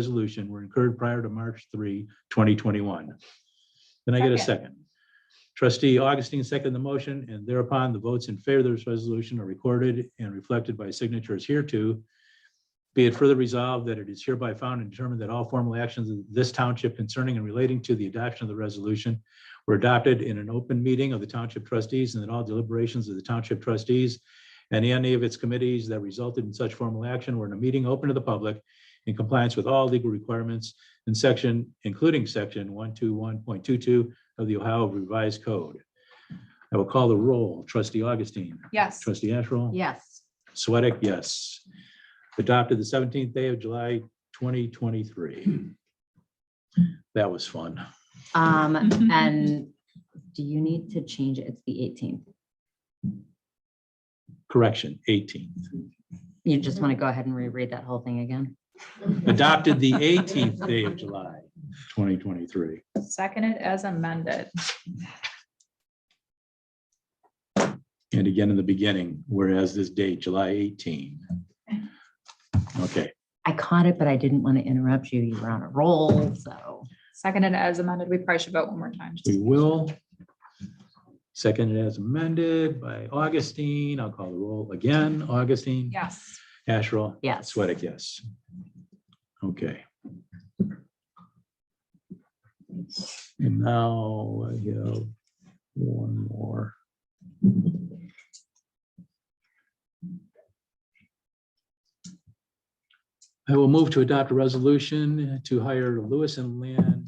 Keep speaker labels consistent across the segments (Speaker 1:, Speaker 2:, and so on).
Speaker 1: resolution were incurred prior to March 3, 2021. Can I get a
Speaker 2: Second.
Speaker 1: second? Trustee Augustine seconded the motion, and thereupon the votes in favor of this resolution are recorded and reflected by signatures hereto. Be it further resolved that it is hereby found and determined that all formal actions of this township concerning and relating to the adoption of the resolution were adopted in an open meeting of the township trustees and that all deliberations of the township trustees and any of its committees that resulted in such formal action were in a meeting open to the public in compliance with all legal requirements in section, including section one two one point two two of the Ohio Revised Code. I will call the roll. Trustee Augustine.
Speaker 2: Yes.
Speaker 1: Trustee Asherall.
Speaker 2: Yes.
Speaker 1: Sweattick, yes. Adopted the seventeenth day of July, twenty twenty-three. That was fun.
Speaker 3: Um, and do you need to change it? It's the eighteenth.
Speaker 1: Correction, eighteenth.
Speaker 3: You just want to go ahead and reread that whole thing again?
Speaker 1: Adopted the eighteenth day of July, twenty twenty-three.
Speaker 2: Seconded as amended.
Speaker 1: And again in the beginning, whereas this date, July 18. Okay,
Speaker 3: I caught it, but I didn't want to interrupt you. You were on a roll, so.
Speaker 2: Seconded as amended. We probably should vote one more time. just-
Speaker 1: we will. Seconded as amended by Augustine. I'll call the roll again. Augustine.
Speaker 2: Yes.
Speaker 1: Asherall.
Speaker 3: Yes.
Speaker 1: Sweattick, yes. Okay. And now I have one more. I will move to adopt a resolution to hire Lewis and Land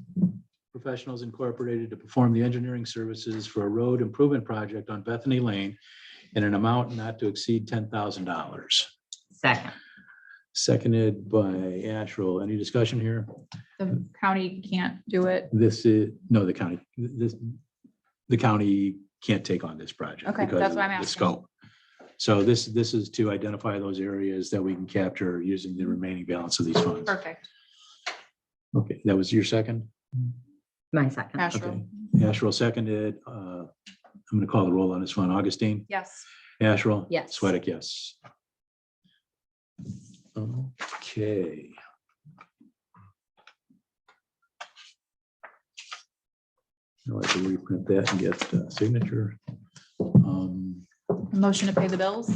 Speaker 1: Professionals Incorporated to perform the engineering services for a road improvement project on Bethany Lane in an amount not to exceed ten thousand dollars.
Speaker 3: Second,
Speaker 1: Seconded by Asherle. Any discussion here?
Speaker 2: The county can't do it.
Speaker 1: This is, no, the county, this, the county can't take on this project.
Speaker 2: Okay,
Speaker 1: because
Speaker 2: that's
Speaker 1: of
Speaker 2: what I'm
Speaker 1: the
Speaker 2: asking.
Speaker 1: Scope. So this, this is to identify those areas that we can capture using the remaining balance of these funds.
Speaker 2: Perfect.
Speaker 1: Okay, that was your second?
Speaker 3: my second.
Speaker 2: Asherle.
Speaker 1: Asherle seconded. Uh, I'm going to call the roll on this one. Augustine?
Speaker 2: Yes.
Speaker 1: Asherle?
Speaker 3: Yes.
Speaker 1: Sweattick, yes. Okay. I'll have to reprint that and get the signature. Um,
Speaker 2: Motion to pay the bills.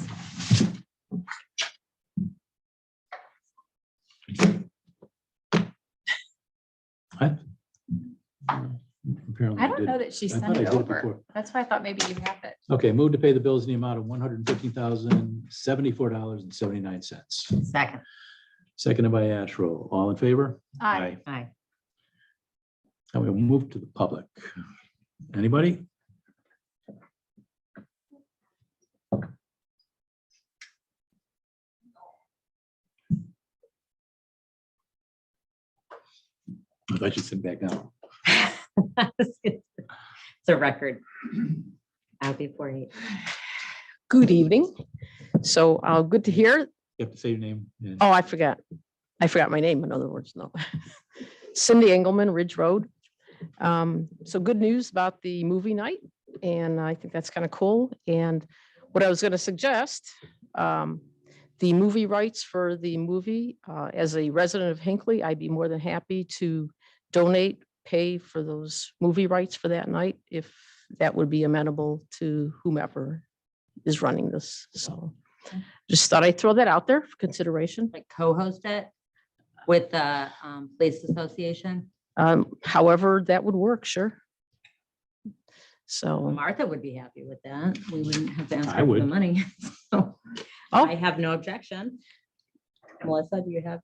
Speaker 1: Apparently,
Speaker 2: I don't
Speaker 1: Oh, did-
Speaker 2: know that she
Speaker 1: I
Speaker 2: sent
Speaker 1: thought I
Speaker 2: it
Speaker 1: did
Speaker 2: over.
Speaker 1: before.
Speaker 2: That's why I thought maybe you have it.
Speaker 1: Okay, move to pay the bills in the amount of one hundred and fifteen thousand, seventy-four dollars and seventy-nine cents.
Speaker 3: Second,
Speaker 1: Seconded by Asherle. All in favor?
Speaker 2: Aye.
Speaker 3: aye.
Speaker 1: And we'll move to the public. Anybody? I thought you said back down.
Speaker 3: It's a record. I'll be forty.
Speaker 4: Good evening. So uh, good to hear.
Speaker 1: You have to say your name. and-
Speaker 4: Oh, I forgot. I forgot my name, in other words, no. Cindy Engelman, Ridge Road. Um, So good news about the movie night, and I think that's kind of cool. And what I was going to suggest, um, the movie rights for the movie, uh, as a resident of Hinckley, I'd be more than happy to donate, pay for those movie rights for that night, if that would be amenable to whomever is running this, so. Just thought I'd throw that out there for consideration.
Speaker 3: Like co-host it with the um police association.
Speaker 4: Um, however, that would work, sure. So,
Speaker 3: Martha would be happy with that. We wouldn't have to ask
Speaker 1: I
Speaker 3: her for the
Speaker 1: would.
Speaker 3: money. So I
Speaker 4: oh,
Speaker 3: have no objection. Melissa, do you have?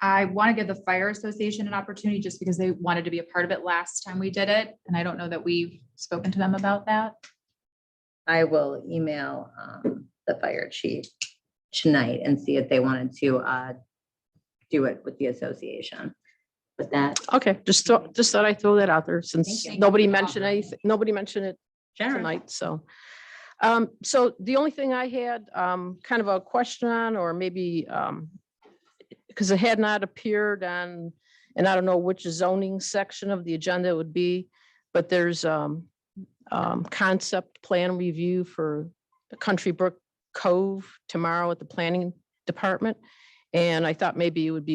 Speaker 2: I want to give the fire association an opportunity just because they wanted to be a part of it last time we did it. And I don't know that we've spoken to them about that.
Speaker 3: I will email um, the fire chief tonight and see if they wanted to uh, do it with the association. With that,
Speaker 4: okay, just thought, just thought I'd throw that out there since
Speaker 3: Thank
Speaker 2: you.
Speaker 4: nobody mentioned anything, nobody mentioned it
Speaker 3: Sharon,
Speaker 4: tonight, so. Um, so the only thing I had, um, kind of a question on, or maybe, um, because it had not appeared on, and I don't know which zoning section of the agenda it would be, but there's, um, um, concept plan review for the Country Brook Cove tomorrow at the planning department. And I thought maybe it would be